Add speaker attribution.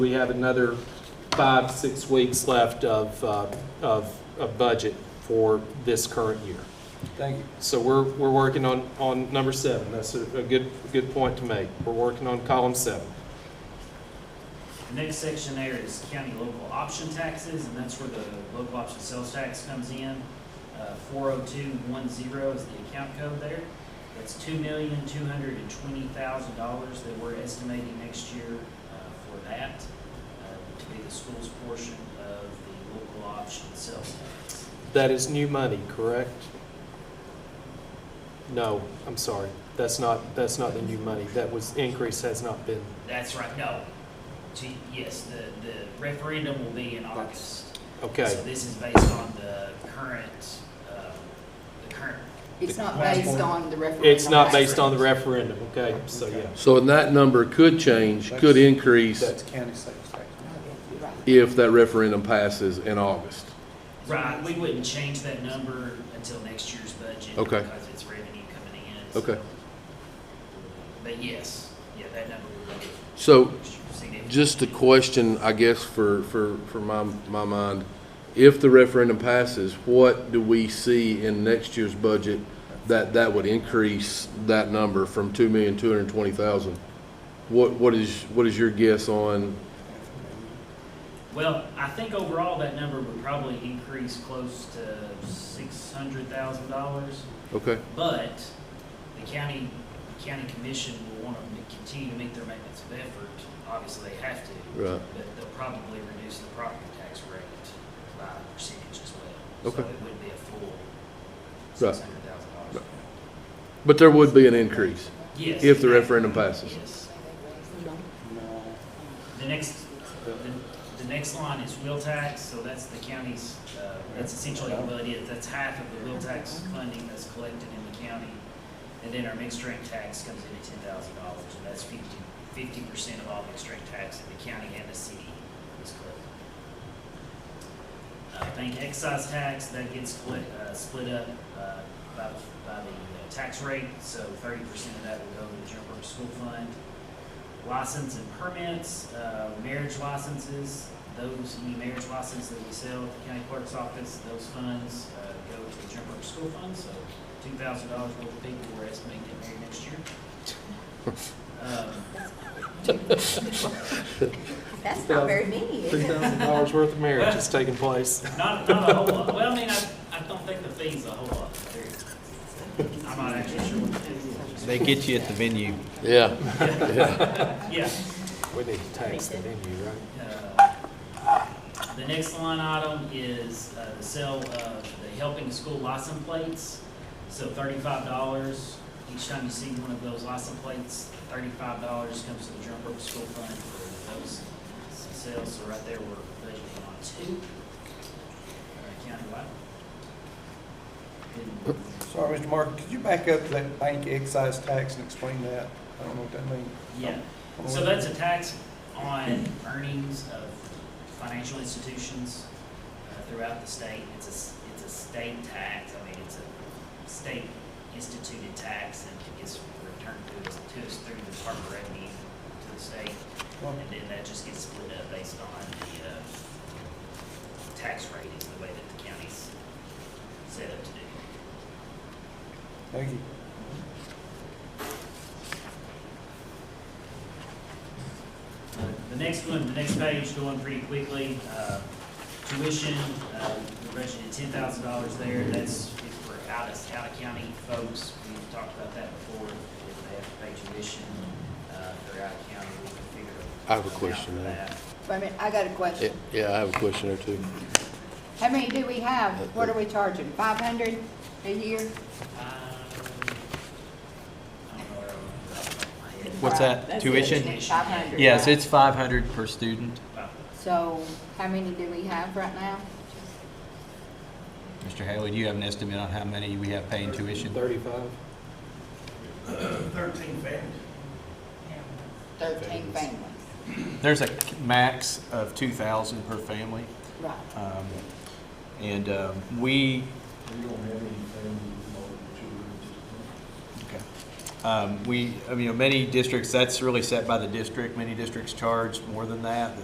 Speaker 1: We have another five, six weeks left of, uh, of, of budget for this current year.
Speaker 2: Thank you.
Speaker 1: So we're, we're working on, on number seven. That's a, a good, good point to make. We're working on column seven.
Speaker 3: The next section there is county local option taxes, and that's where the local option sales tax comes in. Four oh two one zero is the account code there. That's two million, two hundred and twenty thousand dollars that we're estimating next year uh, for that, uh, to be the school's portion of the local option sales tax.
Speaker 1: That is new money, correct? No, I'm sorry. That's not, that's not the new money. That was, increase has not been,
Speaker 3: That's right, no. Gee, Yes, the, the referendum will be in August. So
Speaker 1: okay.
Speaker 3: this is based on the current, uh, the current
Speaker 4: It's not
Speaker 2: Last
Speaker 4: based
Speaker 2: one.
Speaker 4: on the referendum.
Speaker 1: It's not based on the referendum, okay? So, yeah.
Speaker 5: So and that number could change, could increase
Speaker 2: That's county sales tax.
Speaker 4: Right.
Speaker 5: if that referendum passes in August.
Speaker 3: Right, we wouldn't change that number until next year's budget.
Speaker 5: Okay.
Speaker 3: Because it's revenue coming in. so-
Speaker 5: Okay.
Speaker 3: But yes, yeah, that number would be.
Speaker 5: So
Speaker 3: significant.
Speaker 5: just a question, I guess, for, for, for my, my mind. If the referendum passes, what do we see in next year's budget that, that would increase that number from two million, two hundred and twenty thousand? What, what is, what is your guess on,
Speaker 3: Well, I think overall that number would probably increase close to six hundred thousand dollars.
Speaker 5: okay,
Speaker 3: But the county, the county commission will want to continue to make their maintenance of effort. Obviously, they have to.
Speaker 5: right,
Speaker 3: But they'll probably reduce the property tax rate by a percentage as well.
Speaker 5: Okay.
Speaker 3: So it would be a full
Speaker 5: Right.
Speaker 3: six hundred thousand dollars.
Speaker 5: but there would be an increase
Speaker 3: Yes.
Speaker 5: if the referendum passes.
Speaker 3: Yes.
Speaker 2: No.
Speaker 3: The next, the, the next line is wheel tax, so that's the county's, uh, that's essentially what it is. That's half of the wheel tax funding that's collected in the county. And then our mixed drink tax comes in at ten thousand dollars, and that's fifty, fifty percent of all mixed drink tax in the county and the city is collected. Uh, bank excise tax, that gets split, uh, split up, uh, by, by the uh, tax rate, so thirty percent of that will go to the general purpose school fund. License and permits, uh, marriage licenses, those, any marriage license that we sell at the county clerk's office, those funds, uh, go to the general purpose school fund, so two thousand dollars worth of people we're estimating get married next year. Um,
Speaker 4: That's not very many, is
Speaker 1: Three
Speaker 4: it?
Speaker 1: thousand dollars worth of marriage is taking place.
Speaker 3: Not, not a whole lot. Well, I mean, I, I don't think the fee's a whole lot. There- I'm not actually sure what it is.
Speaker 6: They get you at the venue.
Speaker 5: Yeah.
Speaker 3: Yeah.
Speaker 1: We need to tax that in you, right?
Speaker 3: uh, The next line item is uh, the sale of the helping school license plates. So thirty-five dollars each time you see one of those license plates, thirty-five dollars comes to the general purpose school fund for those sales. So right there, we're budgeting on two. uh, Countywide. And
Speaker 2: Sorry, Mr. Mark, could you back up to that bank excise tax and explain that? I don't know what that means.
Speaker 3: Yeah, so that's a tax on earnings of financial institutions uh, throughout the state. It's a, s- it's a state tax, I mean, it's a state instituted tax and it's returned to us, to us through the Department of Revenue to the state.
Speaker 2: Well,
Speaker 3: And then that just gets split up based on the, uh, tax rate is the way that the county's set up to do.
Speaker 2: Thank you.
Speaker 3: The next one, the next page, going pretty quickly, uh, tuition, uh, we're budgeted ten thousand dollars there, that's if we're out of, out of county folks, we've talked about that before, if they have to pay tuition, uh, if they're out of county, we can figure out.
Speaker 5: I have a question,
Speaker 3: for
Speaker 5: ma'am.
Speaker 3: that.
Speaker 4: Wait a minute, I got a question.
Speaker 5: Yeah, I have a question or two.
Speaker 4: How many do we have? What are we charging? Five hundred a year?
Speaker 3: Um, I don't know where I'm off the top of my head.
Speaker 6: What's that? Tuition?
Speaker 4: Five hundred.
Speaker 6: Yes, it's five hundred per student.
Speaker 3: About
Speaker 4: So how many do we have right now?
Speaker 6: Mr. Haley, do you have an estimate on how many we have paying tuition?
Speaker 1: Thirty-five?
Speaker 4: Thirteen families.
Speaker 6: There's a max of two thousand per family.
Speaker 4: Right.
Speaker 6: Um, And um, we,
Speaker 7: We don't have anything more than two rooms.
Speaker 6: okay. Um, we, I mean, many districts, that's really set by the district. Many districts charge more than that. The